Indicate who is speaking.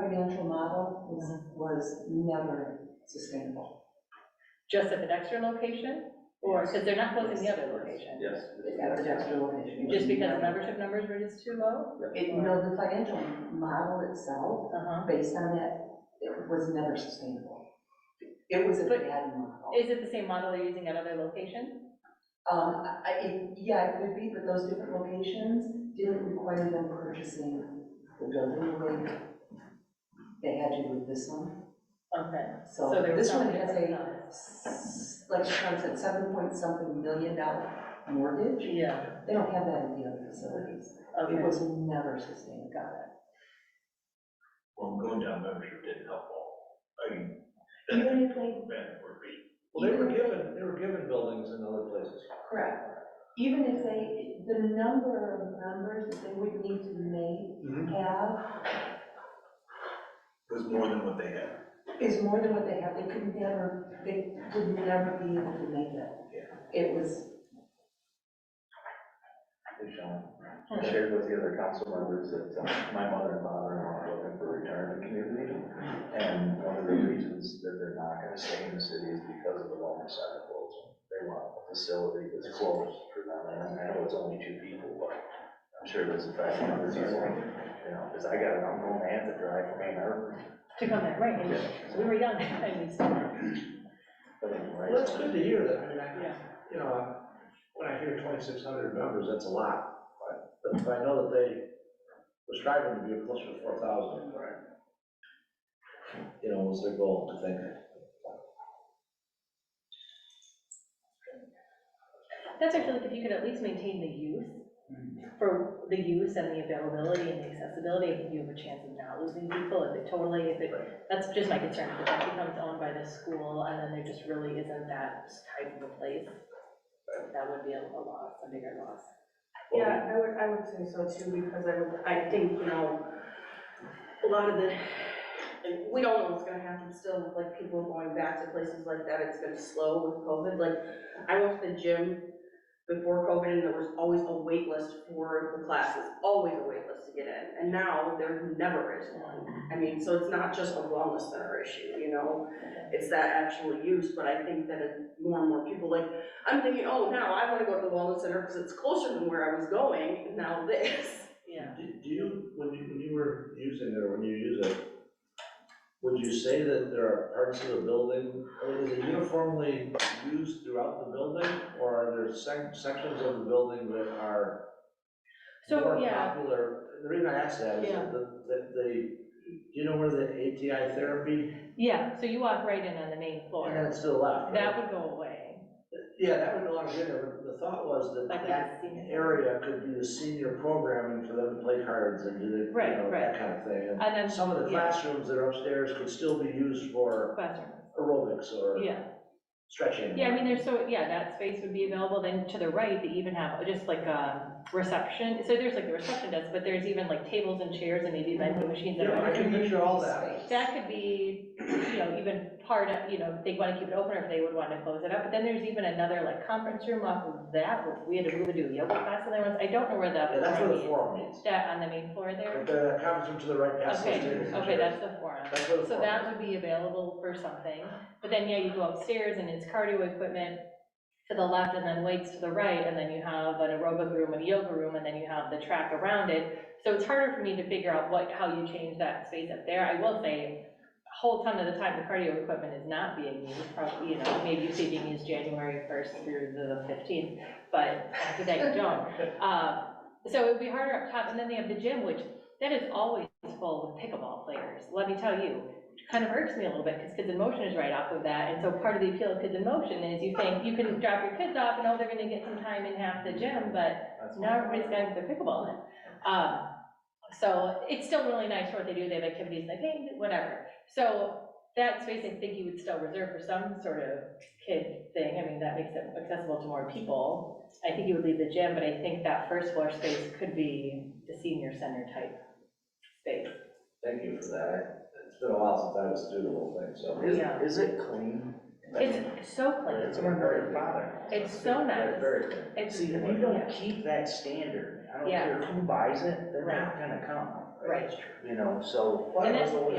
Speaker 1: financial model was,
Speaker 2: Mm-hmm.
Speaker 1: was never sustainable.
Speaker 2: Just at the Dexter location? Or, because they're not closing the other location?
Speaker 3: Yes.
Speaker 1: At the Dexter location.
Speaker 2: Just because membership numbers were just too low?
Speaker 1: It, you know, the financial model itself,
Speaker 2: Uh-huh.
Speaker 1: based on that, it was never sustainable. It was a
Speaker 2: But-
Speaker 1: bad model.
Speaker 2: Is it the same model they're using at other locations?
Speaker 1: Um, I- I, it- yeah, it would be, but those different locations didn't require them purchasing the building the way they had to with this one.
Speaker 2: Okay,
Speaker 1: So
Speaker 2: So there was
Speaker 1: this one
Speaker 2: something
Speaker 1: has
Speaker 2: different
Speaker 1: a,
Speaker 2: about it.
Speaker 1: s- like Sean said, seven point something million dollar mortgage.
Speaker 2: yeah,
Speaker 1: They don't have that in the other facilities. It
Speaker 2: okay.
Speaker 1: was never sustained, got it.
Speaker 4: Well, going down membership didn't help all. I mean, that,
Speaker 1: Even if they,
Speaker 4: that would be,
Speaker 3: Well, they were given, they were given buildings in other places.
Speaker 1: correct, even if they, the number of members that they would need to make,
Speaker 3: Mm-hmm.
Speaker 1: have
Speaker 4: was more than what they had.
Speaker 1: is more than what they have, they could never, they would never be able to make it. It was,
Speaker 5: Hey, Sean, I shared with the other council members that uh, my mother and father-in-law are looking for retirement community. And one of the reasons that they're not gonna stay in the city is because of the wellness center closing. They want a facility that's closed for them, and I know it's only two people, but I'm sure there's a fact that there's, you know, because I got an uncle and aunt that drive from Ann Arbor.
Speaker 2: To come back, right, and we were young, and we still are.
Speaker 5: But anyway,
Speaker 3: Well, it's good to hear that, I mean,
Speaker 2: Yeah.
Speaker 3: I, you know, when I hear twenty-six hundred members, that's a lot. But if I know that they were striving to be close to four thousand. Right. You know, was their goal, I think.
Speaker 2: That's actually, if you could at least maintain the use, for the use and the availability and the accessibility, if you have a chance of not losing people, if it totally, if it, that's just my concern, if that becomes owned by the school, and then there just really isn't that type of a place, that would be a a loss, a bigger loss.
Speaker 6: Yeah, I would, I would say so too, because I would, I think, you know, a lot of the, and we don't know what's gonna happen still with like people going back to places like that, it's been slow with COVID, like, I went to the gym before COVID and there was always a wait list for the classes, always a wait list to get in, and now there never is one. I mean, so it's not just a wellness center issue, you know, it's that actual use, but I think that it- more and more people, like, I'm thinking, oh, now I wanna go to the wellness center because it's closer than where I was going, and now this.
Speaker 2: Yeah.
Speaker 3: Do do you, when you, when you were using it, or when you use it, would you say that there are parts of the building, I mean, is it uniformly used throughout the building? Or are there sec- sections of the building that are
Speaker 2: So,
Speaker 3: more
Speaker 2: yeah,
Speaker 3: popular? The reason I ask that is
Speaker 6: Yeah.
Speaker 3: that, that the, you know where the ATI therapy, Oh,
Speaker 2: yeah, so you walk right in on the main
Speaker 3: and then
Speaker 2: floor,
Speaker 3: it's to the left, right?
Speaker 2: that would go away,
Speaker 3: Yeah, that would belong there, but the thought was that
Speaker 2: like
Speaker 3: that
Speaker 2: that's seen.
Speaker 3: area could be the senior programming for them to play cards and do the, you
Speaker 2: Right,
Speaker 3: know,
Speaker 2: right.
Speaker 3: that kind of thing. And
Speaker 2: And then
Speaker 3: Some of the
Speaker 2: yeah.
Speaker 3: classrooms that are upstairs could still be used for
Speaker 2: classroom,
Speaker 3: aerobics or
Speaker 2: yeah.
Speaker 3: stretching.
Speaker 2: Yeah, I mean, there's so, yeah, that space would be available, then to the right, they even have just like a reception, so there's like the reception desk, but there's even like tables and chairs and maybe vending machines. and
Speaker 3: Yeah, I can picture all that.
Speaker 1: space.
Speaker 2: That could be, you know, even part of, you know, if they want to keep it open or if they would want to close it up, but then there's even another like conference room off of that, which we had to move into a yoga class and there was, I don't know where that.
Speaker 3: Yeah, that's where the
Speaker 2: is.
Speaker 3: forum is.
Speaker 2: That on the main floor there?
Speaker 3: But the conference room to the right past those
Speaker 2: Okay,
Speaker 3: tables and
Speaker 2: okay,
Speaker 3: chairs.
Speaker 2: that's the forum.
Speaker 3: That's where the
Speaker 2: So
Speaker 3: forum
Speaker 2: that
Speaker 3: is.
Speaker 2: would be available for something, but then, yeah, you go upstairs and it's cardio equipment to the left and then weights to the right, and then you have an aerobic room and a yoga room, and then you have the track around it. So it's harder for me to figure out what, how you change that space up there. I will say, a whole ton of the time, the cardio equipment is not being used, probably, you know, maybe you see being used January first through the fifteenth, but after that, you don't. Uh, So it would be harder up top, and then they have the gym, which, that is always full with pickleball players, let me tell you kind of irks me a little bit, because Kids in Motion is right off of that, and so part of the appeal of Kids in Motion is you think, you can drop your kids off, and oh, they're gonna get some time in half the gym, but
Speaker 5: that's-
Speaker 2: now everybody's got their pickleball in. Um, So it's still really nice for what they do, they have activities, they paint, whatever. So that space, I think you would still reserve for some sort of kid thing, I mean, that makes it accessible to more people. I think you would leave the gym, but I think that first floor space could be the senior center type space.
Speaker 3: Thank you for that. I- It's been a while since I was through the whole thing, so.
Speaker 5: Is,
Speaker 2: Yeah.
Speaker 5: is it clean? I mean,
Speaker 2: It's so clean.
Speaker 5: It's my very father.
Speaker 2: It's so nice.
Speaker 3: Very clean.
Speaker 2: It's,
Speaker 5: See, if you don't
Speaker 2: yeah,
Speaker 5: keep that standard, I don't
Speaker 2: Yeah.
Speaker 5: care who buys it, they're not gonna come.
Speaker 2: Right.
Speaker 5: You know, so.
Speaker 2: And that's-